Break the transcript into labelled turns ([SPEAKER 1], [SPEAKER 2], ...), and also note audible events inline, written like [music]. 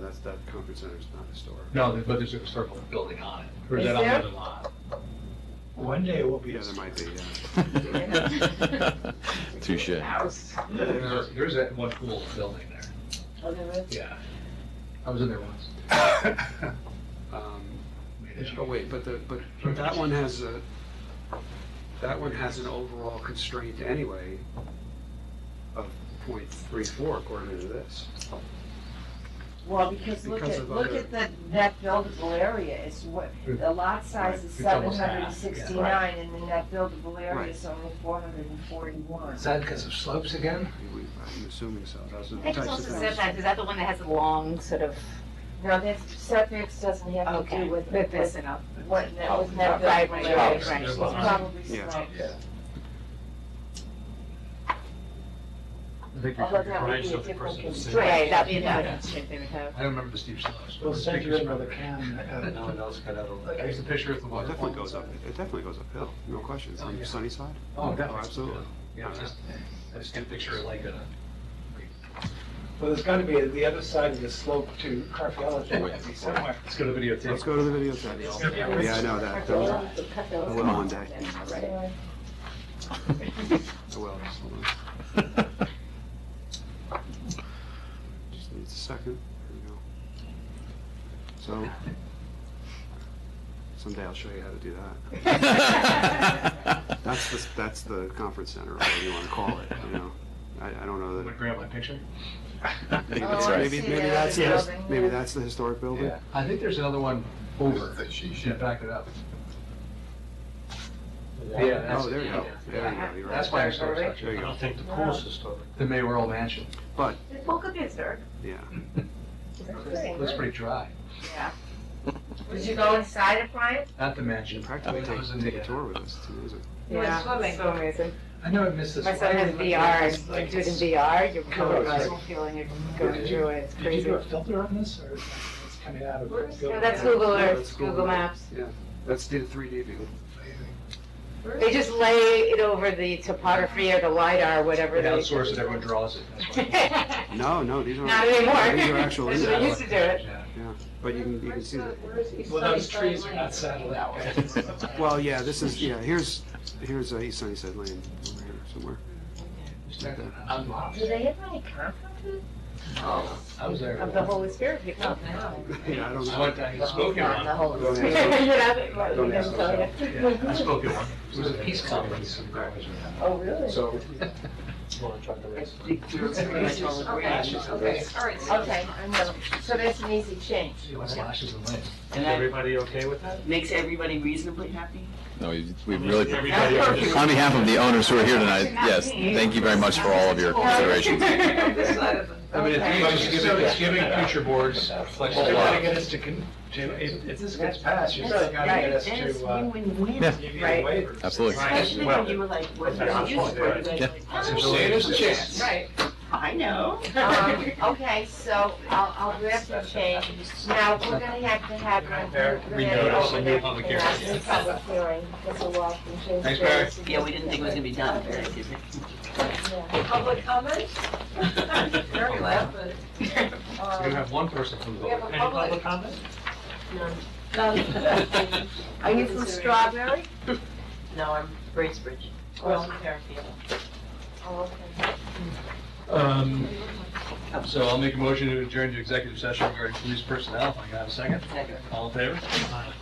[SPEAKER 1] that's, that conference center is not historic.
[SPEAKER 2] No, there- but there's a historical building on it, or is
[SPEAKER 3] Is
[SPEAKER 2] that on the
[SPEAKER 3] there?
[SPEAKER 2] other lot?
[SPEAKER 4] One day it will be.
[SPEAKER 1] Yeah, there might be, yeah.
[SPEAKER 5] Touche.
[SPEAKER 3] House.
[SPEAKER 2] There's, there's that one cool building there,
[SPEAKER 3] Oh, there is?
[SPEAKER 2] yeah. I was in there once.
[SPEAKER 1] [laughs] Um,
[SPEAKER 2] Made it.
[SPEAKER 1] Oh, wait, but the, but but that one has a, that one has an overall constraint anyway of point three four according to this.
[SPEAKER 3] Well, because look
[SPEAKER 1] Because
[SPEAKER 3] at,
[SPEAKER 1] of
[SPEAKER 3] look
[SPEAKER 1] other-
[SPEAKER 3] at the net buildable area, it's what, the lot size is
[SPEAKER 2] Right, it's
[SPEAKER 3] seven
[SPEAKER 2] almost half,
[SPEAKER 3] hundred
[SPEAKER 2] yeah.
[SPEAKER 3] and sixty-nine, and the net buildable area
[SPEAKER 1] Right.
[SPEAKER 3] is only four hundred and forty-one.
[SPEAKER 2] Is that because of slopes again?
[SPEAKER 1] I'm assuming so, those are
[SPEAKER 6] I
[SPEAKER 1] the types
[SPEAKER 6] think it's
[SPEAKER 1] of
[SPEAKER 6] also
[SPEAKER 1] things.
[SPEAKER 6] setbacks, is that the one that has a long sort of,
[SPEAKER 3] Now, this setbacks doesn't have to do
[SPEAKER 6] okay,
[SPEAKER 3] with,
[SPEAKER 6] with this
[SPEAKER 3] with
[SPEAKER 6] and up?
[SPEAKER 3] what, net- with net
[SPEAKER 6] Right,
[SPEAKER 3] buildable
[SPEAKER 6] right,
[SPEAKER 3] area,
[SPEAKER 6] right,
[SPEAKER 3] it's
[SPEAKER 6] right.
[SPEAKER 3] probably
[SPEAKER 1] Yeah.
[SPEAKER 3] slight.
[SPEAKER 2] I think there's
[SPEAKER 3] Although that would
[SPEAKER 2] range
[SPEAKER 3] be a
[SPEAKER 2] of the
[SPEAKER 3] different
[SPEAKER 2] person that's
[SPEAKER 3] constraint.
[SPEAKER 2] sitting. I
[SPEAKER 6] Right, that'd be
[SPEAKER 3] Yeah.
[SPEAKER 6] another constraint they would have.
[SPEAKER 2] don't remember the steep slopes. but
[SPEAKER 4] We'll
[SPEAKER 2] the
[SPEAKER 4] send you
[SPEAKER 2] pictures
[SPEAKER 4] another
[SPEAKER 2] were-
[SPEAKER 4] can.
[SPEAKER 2] [laughs]
[SPEAKER 4] uh,
[SPEAKER 2] No one else got out of it. I used to picture it from
[SPEAKER 1] Well, it
[SPEAKER 2] water.
[SPEAKER 1] definitely goes up, it definitely goes uphill, no question, from Sunnyside.
[SPEAKER 2] Oh,
[SPEAKER 1] Oh,
[SPEAKER 2] definitely.
[SPEAKER 1] absolutely.
[SPEAKER 2] Yeah, just, I just get a picture of like a.
[SPEAKER 4] Well, there's gotta be the other side of the slope to Carpello, there has to be somewhere.
[SPEAKER 2] It's gonna videotape.
[SPEAKER 1] Let's go to the videotape. Yeah, I know that, those are- I will one day. I will, just hold on. Just needs a second. Here we go. So, someday I'll show you how to do that. That's the, that's the conference center, or whatever you want to call it, you know? I, I don't know
[SPEAKER 2] I'm gonna
[SPEAKER 1] that,
[SPEAKER 2] grab my picture.
[SPEAKER 1] maybe,
[SPEAKER 3] Oh,
[SPEAKER 1] it's-
[SPEAKER 3] I
[SPEAKER 1] maybe,
[SPEAKER 3] see,
[SPEAKER 1] maybe
[SPEAKER 3] yeah,
[SPEAKER 1] that's,
[SPEAKER 3] the
[SPEAKER 1] the-
[SPEAKER 3] building,
[SPEAKER 1] maybe
[SPEAKER 3] yeah.
[SPEAKER 1] that's the historic building?
[SPEAKER 2] I think there's another one over. Should back it up. Yeah, that's.
[SPEAKER 1] Oh, there you go, there you go, you're
[SPEAKER 2] That's
[SPEAKER 1] right.
[SPEAKER 2] why I started.
[SPEAKER 1] There you go.
[SPEAKER 7] think the pool's historic.
[SPEAKER 2] The mayoral mansion.
[SPEAKER 6] The pool could be historic.
[SPEAKER 1] Yeah,
[SPEAKER 2] Looks pretty dry.
[SPEAKER 3] Yeah. Did you go inside it, Brian?
[SPEAKER 2] Not the
[SPEAKER 1] you
[SPEAKER 2] mansion.
[SPEAKER 1] practically
[SPEAKER 2] It
[SPEAKER 1] take,
[SPEAKER 2] was in
[SPEAKER 1] take a
[SPEAKER 2] the-
[SPEAKER 1] tour with us, it's amazing.
[SPEAKER 6] Yeah, so amazing.
[SPEAKER 2] I know I missed this.
[SPEAKER 6] My
[SPEAKER 2] one.
[SPEAKER 6] son has VR, and when you do it in VR, you're
[SPEAKER 4] Cool.
[SPEAKER 6] going through feeling, you're going
[SPEAKER 4] Did you-
[SPEAKER 6] through it, it's
[SPEAKER 4] Did you
[SPEAKER 6] crazy.
[SPEAKER 4] do a filter on this, or is it's coming out of?
[SPEAKER 6] No, that's Google
[SPEAKER 1] Yeah,
[SPEAKER 6] Earth,
[SPEAKER 1] that's cool.
[SPEAKER 6] Google Maps.
[SPEAKER 1] Yeah, that's the three D view.
[SPEAKER 6] They just lay it over the topography or the LiDAR,
[SPEAKER 2] They
[SPEAKER 6] whatever they. [laughs]
[SPEAKER 2] outsource it, everyone draws it. That's why.
[SPEAKER 1] No, no, these are.
[SPEAKER 6] Not anymore.
[SPEAKER 1] These are
[SPEAKER 3] [laughs]
[SPEAKER 1] actual,
[SPEAKER 6] [laughs] That's what we
[SPEAKER 1] in-
[SPEAKER 6] used to do it.
[SPEAKER 2] Yeah.
[SPEAKER 1] but you can, you can see that.
[SPEAKER 4] Well, those trees are not settled out.
[SPEAKER 2] [laughs]
[SPEAKER 1] Well, yeah, this is, yeah, here's, here's uh, East Sunnyside Lane over here somewhere.
[SPEAKER 2] Just check that out.
[SPEAKER 3] Do they have any conferences?
[SPEAKER 2] I was there.
[SPEAKER 6] Of the Holy Spirit people.
[SPEAKER 3] Oh,
[SPEAKER 1] [laughs] Yeah, I don't
[SPEAKER 2] I went
[SPEAKER 1] know.
[SPEAKER 2] to, I spoke at one.
[SPEAKER 1] Go
[SPEAKER 6] You
[SPEAKER 1] ahead.
[SPEAKER 3] [laughs]
[SPEAKER 6] know,
[SPEAKER 1] Don't ask
[SPEAKER 6] like-
[SPEAKER 2] Yeah, I spoke at one. It was a peace conference.
[SPEAKER 3] Oh, really?
[SPEAKER 1] So,
[SPEAKER 3] Okay, all right, okay, I know. So that's an easy change.
[SPEAKER 2] Lashes and lights.
[SPEAKER 7] And that
[SPEAKER 2] Everybody okay with that?
[SPEAKER 7] makes everybody reasonably happy?
[SPEAKER 5] No, we we really,
[SPEAKER 7] Everybody
[SPEAKER 5] on behalf of the owners who are here tonight, yes, thank you very much for all of your considerations.
[SPEAKER 2] I mean,
[SPEAKER 3] Okay.
[SPEAKER 2] it's giving, it's giving future boards
[SPEAKER 4] You're gonna
[SPEAKER 2] flexibility.
[SPEAKER 4] get us to, con- to, if, if this gets passed, you're gonna
[SPEAKER 7] Right,
[SPEAKER 4] get us
[SPEAKER 7] and it's
[SPEAKER 4] to, uh,
[SPEAKER 7] win-win.
[SPEAKER 5] Yeah.
[SPEAKER 4] give you the
[SPEAKER 6] Right.
[SPEAKER 4] waivers.
[SPEAKER 5] Absolutely.
[SPEAKER 7] Especially when you were like, what do I use for? You guys
[SPEAKER 5] Yeah.
[SPEAKER 7] were like, "Oh,
[SPEAKER 2] So there's a chance.
[SPEAKER 6] Right.
[SPEAKER 7] I
[SPEAKER 2] [laughs]
[SPEAKER 7] know.
[SPEAKER 3] Um, Okay, so I'll, I'll grab the change. Now, we're gonna have to have.
[SPEAKER 2] We notice a new public hearing.
[SPEAKER 3] Public hearing, because the law can change.
[SPEAKER 2] Thanks, Mary.
[SPEAKER 3] things.
[SPEAKER 7] Yeah, we didn't think it was gonna be done, but it is.
[SPEAKER 3] Yeah.
[SPEAKER 8] Public comment?
[SPEAKER 2] [laughs]
[SPEAKER 8] Very loud, but.
[SPEAKER 2] We're
[SPEAKER 3] uh,
[SPEAKER 2] gonna have one person from the.
[SPEAKER 8] We have a public.
[SPEAKER 2] comment?
[SPEAKER 8] None.
[SPEAKER 3] um, Are you from Strawberry?
[SPEAKER 8] No, I'm Bracebridge.
[SPEAKER 3] Well,
[SPEAKER 8] Fairfield.
[SPEAKER 3] Oh, okay.
[SPEAKER 2] Um, so I'll make a motion to adjourn to executive session regarding police personnel. I got a second.
[SPEAKER 7] Second.
[SPEAKER 2] All in favor?